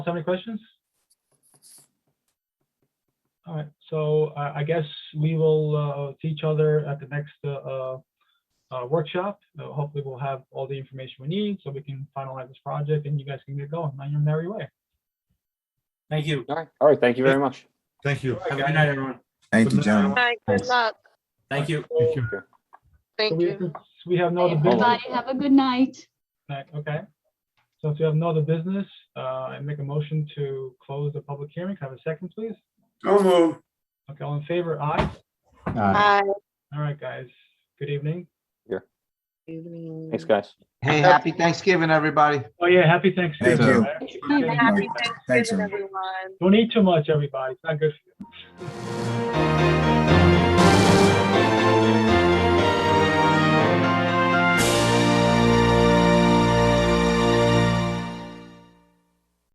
else have any questions? All right, so uh, I, I guess we will, uh, see each other at the next, uh, uh, uh, workshop. Uh, Hopefully we'll have all the information we need so we can finalize this project and you guys can get going on your merry way. Thank you. All right, all right, thank you very much. Thank you. Have a good night, everyone. Thank Good you, night, John. everyone. Hi, good Thanks. luck. Thank you. Thank you. So Thank we- you. since We have no other business. Everybody have a good night. Right, Okay. So if you have no other business, uh, I make a motion to close the public hearing. Can I Have a second, please? Don't move. Okay, all in favor? Aye. Uh, Hi. All right, guys. Good evening. Thanks, guys. Hey, happy Thanksgiving, everybody. Oh, yeah, happy Thanksgiving. Thank you. right? Thank you. Happy Thanks, Thanksgiving, everyone. everyone. Don't eat too much, everybody. It's not good for you.